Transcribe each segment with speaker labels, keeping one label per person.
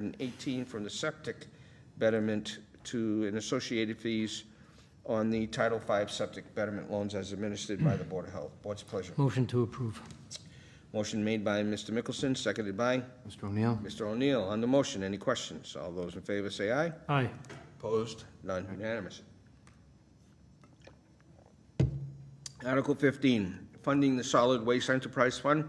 Speaker 1: 618 from the septic betterment to an associated fees on the Title V septic betterment loans as administered by the Board of Health. Board's pleasure.
Speaker 2: Motion to approve.
Speaker 1: Motion made by Mr. Mickelson, seconded by
Speaker 3: Mr. O'Neill?
Speaker 1: Mr. O'Neill. On the motion, any questions? All those in favor say aye.
Speaker 2: Aye.
Speaker 1: Opposed? None unanimous. Article 15, funding the Solid Waste Enterprise Fund.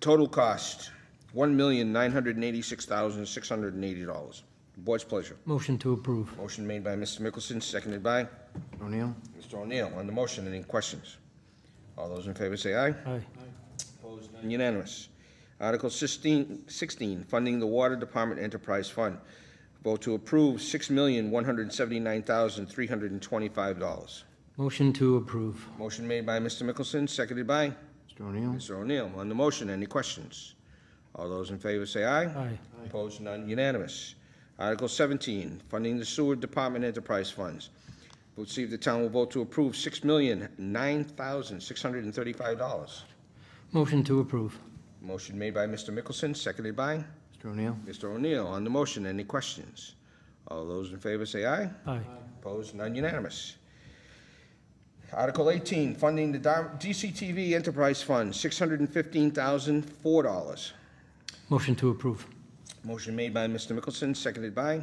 Speaker 1: Total cost, $1,986,680. Board's pleasure.
Speaker 2: Motion to approve.
Speaker 1: Motion made by Mr. Mickelson, seconded by
Speaker 3: Mr. O'Neill?
Speaker 1: Mr. O'Neill. On the motion, any questions? All those in favor say aye.
Speaker 2: Aye.
Speaker 1: Opposed, none unanimous. Article 16, 16, funding the Water Department Enterprise Fund. Vote to approve $6,179,325.
Speaker 2: Motion to approve.
Speaker 1: Motion made by Mr. Mickelson, seconded by
Speaker 3: Mr. O'Neill?
Speaker 1: Mr. O'Neill. On the motion, any questions? All those in favor say aye.
Speaker 2: Aye.
Speaker 1: Opposed, none unanimous. Article 17, funding the Sewer Department Enterprise Funds. Vote to see if the town will vote to approve $6,009,635.
Speaker 2: Motion to approve.
Speaker 1: Motion made by Mr. Mickelson, seconded by?
Speaker 3: Mr. O'Neill?
Speaker 1: Mr. O'Neill, on the motion, any questions? All those in favor say aye.
Speaker 2: Aye.
Speaker 1: Opposed, none unanimous. Article 18, funding the Dar- DCTV Enterprise Fund, $615,004.
Speaker 2: Motion to approve.
Speaker 1: Motion made by Mr. Mickelson, seconded by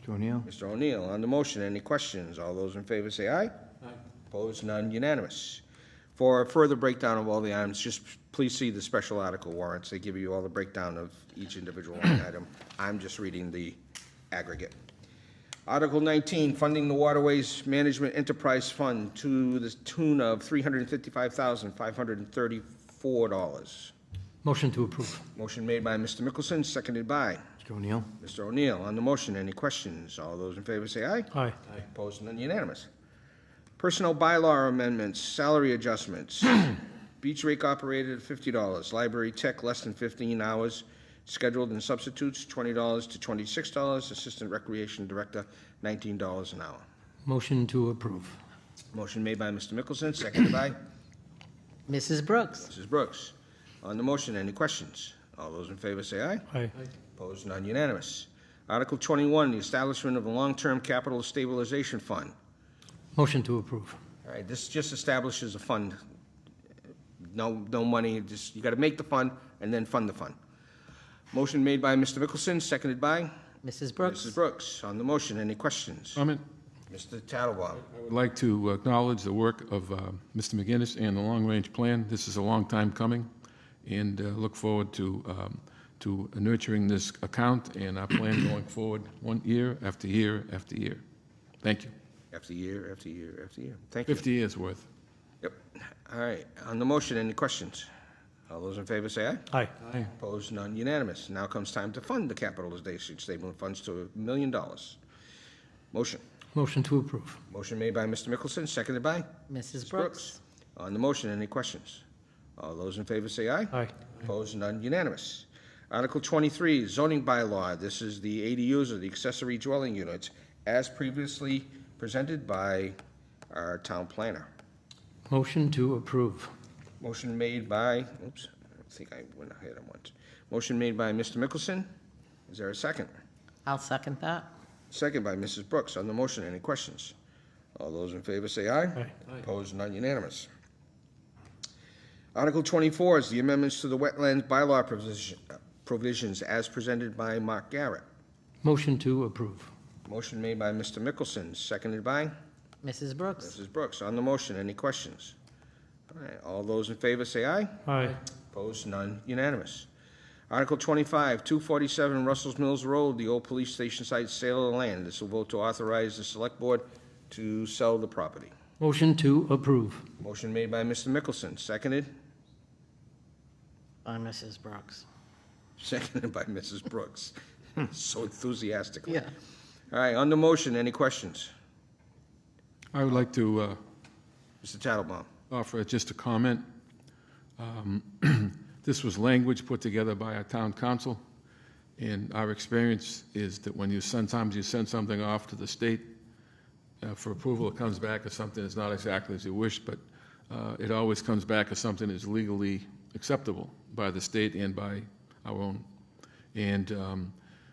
Speaker 3: Mr. O'Neill?
Speaker 1: Mr. O'Neill. On the motion, any questions? All those in favor say aye. Opposed, none unanimous. For a further breakdown of all the items, just please see the special article warrants. They give you all the breakdown of each individual line item. I'm just reading the aggregate. Article 19, funding the Waterways Management Enterprise Fund to the tune of $355,534.
Speaker 2: Motion to approve.
Speaker 1: Motion made by Mr. Mickelson, seconded by
Speaker 3: Mr. O'Neill?
Speaker 1: Mr. O'Neill. On the motion, any questions? All those in favor say aye.
Speaker 2: Aye.
Speaker 1: Opposed, none unanimous. Personnel bylaw amendments, salary adjustments. Beach rake operated at fifty dollars, library tech less than fifteen hours, scheduled and substitutes twenty dollars to twenty-six dollars, assistant recreation director nineteen dollars an hour.
Speaker 2: Motion to approve.
Speaker 1: Motion made by Mr. Mickelson, seconded by
Speaker 4: Mrs. Brooks.
Speaker 1: Mrs. Brooks. On the motion, any questions? All those in favor say aye.
Speaker 2: Aye.
Speaker 1: Opposed, none unanimous. Article twenty-one, the establishment of a long-term capital stabilization fund.
Speaker 2: Motion to approve.
Speaker 1: All right, this just establishes a fund. No, no money, just, you gotta make the fund and then fund the fund. Motion made by Mr. Mickelson, seconded by
Speaker 4: Mrs.
Speaker 1: Mrs.
Speaker 4: Brooks.
Speaker 1: Brooks. On the motion, any questions?
Speaker 5: Comment?
Speaker 1: Mr. Tattelbaum.
Speaker 5: I would like to acknowledge the work of uh, Mr. McGinnis and the Long Range Plan. This is a long time coming, and uh, look forward to, um, to nurturing this account and our plan going forward, one year after year after year. Thank you.
Speaker 1: After year, after year, after year. Thank you.
Speaker 5: 50 years' worth.
Speaker 1: Yep. All right, on the motion, any questions? All those in favor say aye.
Speaker 2: Aye.
Speaker 1: Opposed, none unanimous. Now comes time to fund the capitalization statement funds to a million dollars. Motion.
Speaker 2: Motion to approve.
Speaker 1: Motion made by Mr. Mickelson, seconded by?
Speaker 4: Mrs. Brooks.
Speaker 1: On the motion, any questions? All those in favor say aye.
Speaker 2: Aye.
Speaker 1: Opposed, none unanimous. Article 23, zoning bylaw. This is the ADUs or the accessory dwelling units as previously presented by our town planner.
Speaker 2: Motion to approve.
Speaker 1: Motion made by, oops, I think I went ahead on once. Motion made by Mr. Mickelson. Is there a second?
Speaker 4: I'll second that.
Speaker 1: Second by Mrs. Brooks. On the motion, any questions? All those in favor say aye.
Speaker 2: Aye.
Speaker 1: Opposed, none unanimous. Article 24 is the amendments to the wetlands bylaw provision- provisions as presented by Mark Garrett.
Speaker 2: Motion to approve.
Speaker 1: Motion made by Mr. Mickelson, seconded by
Speaker 4: Mrs. Brooks.
Speaker 1: Mrs. Brooks. On the motion, any questions? All right, all those in favor say aye.
Speaker 2: Aye.
Speaker 1: Opposed, none unanimous. Article 25, 247 Russell's Mills Road, the old police station site sale of land. This will vote to authorize the select board to sell the property.
Speaker 2: Motion to approve.
Speaker 1: Motion made by Mr. Mickelson, seconded?
Speaker 4: By Mrs. Brooks.
Speaker 1: Seconded by Mrs. Brooks, so enthusiastically.
Speaker 4: Yeah.
Speaker 1: All right, on the motion, any questions?
Speaker 5: I would like to uh,
Speaker 1: Mr. Tattlebaum?
Speaker 5: offer just a comment. Um, This was language put together by our town council, and our experience is that when you send, sometimes you send something off to the state uh, for approval, it comes back as something that's not exactly as you wish, but uh, it always comes back as something that's legally acceptable by the state and by our own. And um,